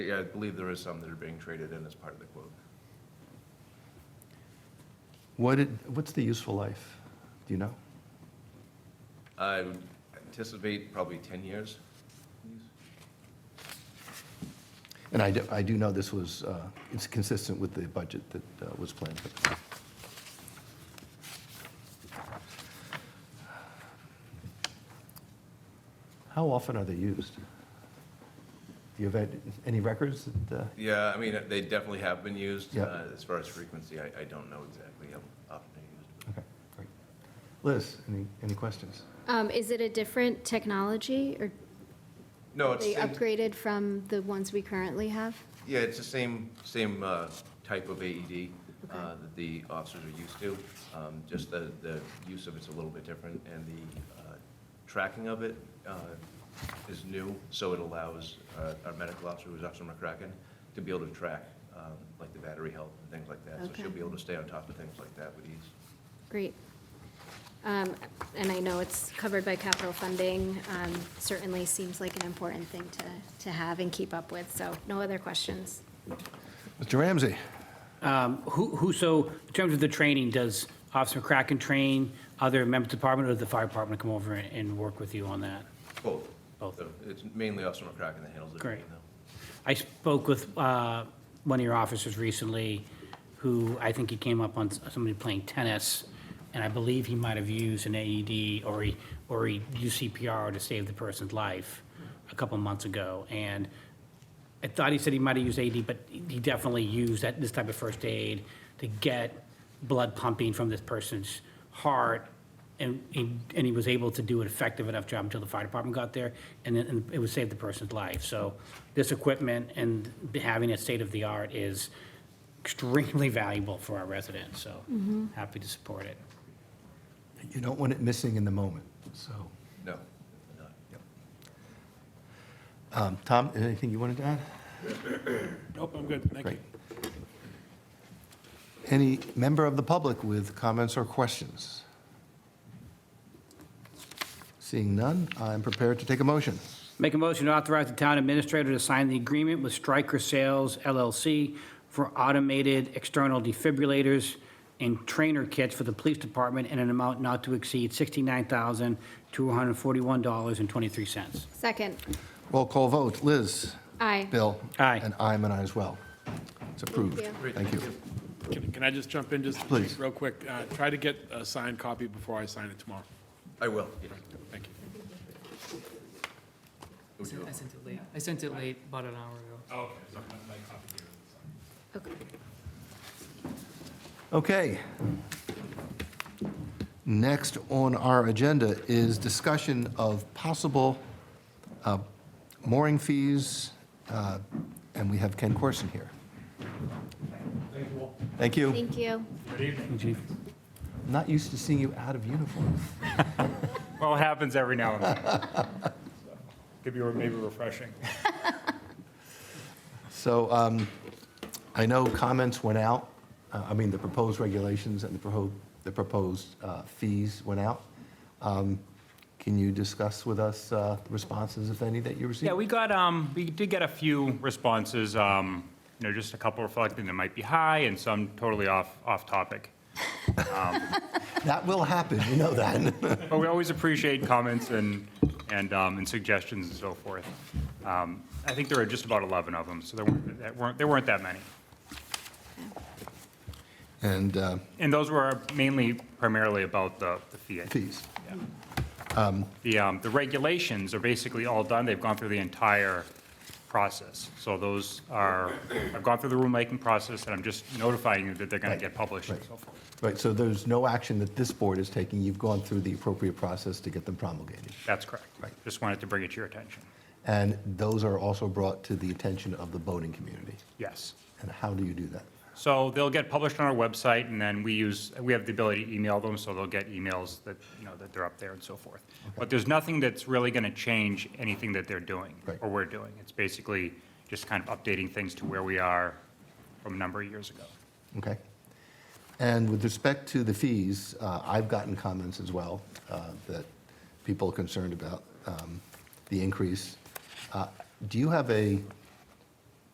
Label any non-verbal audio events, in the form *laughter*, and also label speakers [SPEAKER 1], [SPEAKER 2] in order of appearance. [SPEAKER 1] Yeah, I believe there is some that are being traded in as part of the quote.
[SPEAKER 2] What did, what's the useful life? Do you know?
[SPEAKER 1] I would anticipate probably 10 years.
[SPEAKER 2] And I do, I do know this was, uh, it's consistent with the budget that uh, was planned. How often are they used? Do you have had any records that, uh,
[SPEAKER 1] Yeah, I mean, they definitely have been used.
[SPEAKER 2] Yeah.
[SPEAKER 1] Uh, As far as frequency, I, I don't know exactly how often they're used. but-
[SPEAKER 2] okay, great. Liz, any, any questions?
[SPEAKER 3] Um, Is it a different technology, or
[SPEAKER 1] No, it's,
[SPEAKER 3] they
[SPEAKER 1] same-
[SPEAKER 3] upgraded from the ones we currently have?
[SPEAKER 1] yeah, it's the same, same uh, type of AED uh,
[SPEAKER 3] Okay.
[SPEAKER 1] that the officers are used to. Um, Just the, the use of it's a little bit different, and the uh, tracking of it uh, is new, so it allows uh, our medical officer, who's Officer McCracken, to be able to track, um, like the battery health and things like that. So she'll
[SPEAKER 3] Okay.
[SPEAKER 1] be able to stay on top of things like that with ease.
[SPEAKER 3] Great. Um, And I know it's covered by capital funding, um, certainly seems like an important thing to, to have and keep up with, so no other questions.
[SPEAKER 2] Mr. Ramsey?
[SPEAKER 4] Who, who, so in terms of the training, does Officer McCracken train other members of the department or does the fire department come over and, and work with you on that?
[SPEAKER 1] Both.
[SPEAKER 4] Both.
[SPEAKER 1] So It's mainly Officer McCracken that handles it.
[SPEAKER 4] Great.
[SPEAKER 1] though.
[SPEAKER 4] I spoke with uh, one of your officers recently who I think he came up on s- somebody playing tennis and I believe he might have used an AED or he, or he used CPR to save the person's life a couple months ago. And I thought he said he might have used AED, but he definitely used that, this type of first aid to get blood pumping from this person's heart. And, and and he was able to do an effective enough job until the fire department got there, and then and it would save the person's life. So this equipment and having it state-of-the-art is extremely valuable for our residents, so happy to support it.
[SPEAKER 2] You don't want it missing in the moment, so.
[SPEAKER 1] No, not.
[SPEAKER 2] Um, Tom, anything you wanted to add?
[SPEAKER 5] *clears throat* Nope, I'm good, thank you.
[SPEAKER 2] Great. Any member of the public with comments or questions? Seeing none, I'm prepared to take a motion.
[SPEAKER 4] Make a motion to authorize the town administrator to sign the agreement with Stryker Sales LLC for automated external defibrillators and trainer kits for the police department in an amount not to exceed $69,241.23.
[SPEAKER 3] Second,
[SPEAKER 2] Roll call vote, Liz.
[SPEAKER 3] aye.
[SPEAKER 2] Bill.
[SPEAKER 4] Aye.
[SPEAKER 2] And I'm an aye as well. It's approved.
[SPEAKER 3] Thank
[SPEAKER 1] Great,
[SPEAKER 2] Thank you.
[SPEAKER 5] Can can I just jump in just
[SPEAKER 2] Please.
[SPEAKER 5] real quick? Uh, Try to get a signed copy before I sign it tomorrow.
[SPEAKER 1] I will. yeah.
[SPEAKER 5] Thank you.
[SPEAKER 6] I sent I sent it late. I sent it late, about an hour ago.
[SPEAKER 7] Oh,
[SPEAKER 3] Okay.
[SPEAKER 2] Okay. Next on our agenda is discussion of possible uh, mooring fees, uh, and we have Ken Corson here. Thank you.
[SPEAKER 3] Thank you.
[SPEAKER 2] Not used to seeing you out of uniform.
[SPEAKER 7] Well, it happens every now and then. Could be maybe refreshing.
[SPEAKER 2] So um, I know comments went out, uh, I mean, the proposed regulations and the proposed, the proposed uh, fees went out. Um, Can you discuss with us uh, the responses, if any, that you received?
[SPEAKER 7] Yeah, we got, um, we did get a few responses, um, you know, just a couple reflecting that might be high and some totally off, off topic.
[SPEAKER 2] That will happen, you know that. *laughs*
[SPEAKER 7] But we always appreciate comments and, and, um, and suggestions and so forth. Um, I think there were just about 11 of them, so there weren't, that weren't, there weren't that many.
[SPEAKER 2] And uh,
[SPEAKER 7] And those were mainly primarily about the, the fee.
[SPEAKER 2] fees.
[SPEAKER 7] The, um, the regulations are basically all done. They've gone through the entire process. So those are, I've gone through the rulemaking process, and I'm just notifying you that they're going
[SPEAKER 2] Right,
[SPEAKER 7] to get published and
[SPEAKER 2] right.
[SPEAKER 7] so forth.
[SPEAKER 2] Right, so there's no action that this board is taking. You've gone through the appropriate process to get them promulgated.
[SPEAKER 7] That's correct.
[SPEAKER 2] Right.
[SPEAKER 7] Just wanted to bring it to your attention.
[SPEAKER 2] And those are also brought to the attention of the boating community.
[SPEAKER 7] Yes.
[SPEAKER 2] And how do you do that?
[SPEAKER 7] So they'll get published on our website, and then we use, we have the ability to email them, so they'll get emails that, you know, that they're up there and so forth. But there's nothing that's really going to change anything that they're doing,
[SPEAKER 2] Right.
[SPEAKER 7] or we're doing. It's basically just kind of updating things to where we are from a number of years ago.
[SPEAKER 2] Okay. And with respect to the fees, uh, I've gotten comments as well uh, that people are concerned about um, the increase. Uh, Do you have a